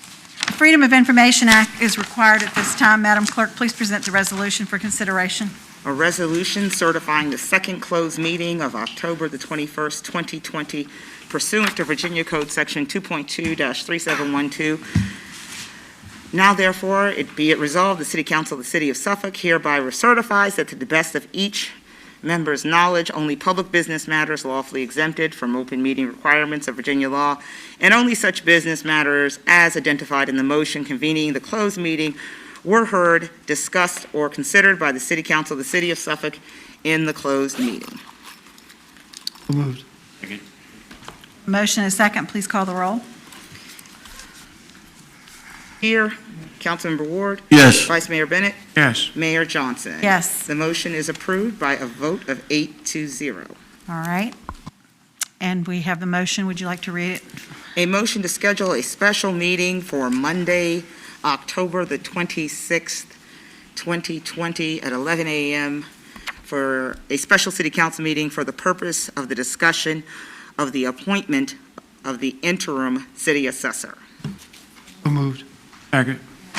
Freedom of Information Act is required at this time. Madam Clerk, please present the resolution for consideration. A resolution certifying the second closed meeting of October the 21st, 2020 pursuant to Virginia Code Section 2.2-3712. Now therefore, it be it resolved, the City Council of the City of Suffolk hereby recertifies that to the best of each member's knowledge, only public business matters lawfully exempted from open meeting requirements of Virginia law, and only such business matters as identified in the motion convening the closed meeting were heard, discussed, or considered by the City Council of the City of Suffolk in the closed meeting. So moved. Motion and a second, please call the roll. Here, Councilmember Ward, Yes. Vice Mayor Bennett, Yes. Mayor Johnson. Yes, The motion is approved by a vote of eight to zero. all right. And we have the motion, would you like to read it? A motion to schedule a special meeting for Monday, October the 26th, 2020, at 11 a.m. for a special city council meeting for the purpose of the discussion of the appointment of the interim city assessor. So moved. Second.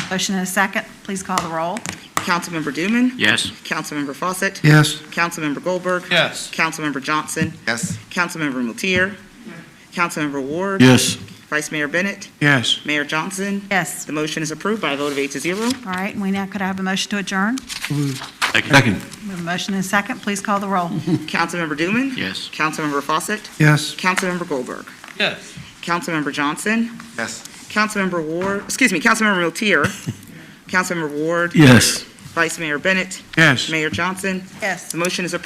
Motion and a second, please call the roll. Councilmember Dooman, Yes. Councilmember Fawcett, Yes. Councilmember Goldberg, Yes. Councilmember Johnson, Yes. Councilmember Miltier, Councilmember Ward, Yes. Vice Mayor Bennett, Yes. Mayor Johnson. Yes, The motion is approved by a vote of eight to zero. all right, and we now, could I have a motion to adjourn? So moved. Second. We have a motion and a second, please call the roll. Councilmember Dooman, Yes. Councilmember Fawcett, Yes. Councilmember Goldberg, Yes. Councilmember Johnson, Yes. Councilmember Ward, excuse me, Councilmember Miltier, Councilmember Ward, Yes. Vice Mayor Bennett, Yes. Mayor Johnson. Yes. The motion is approved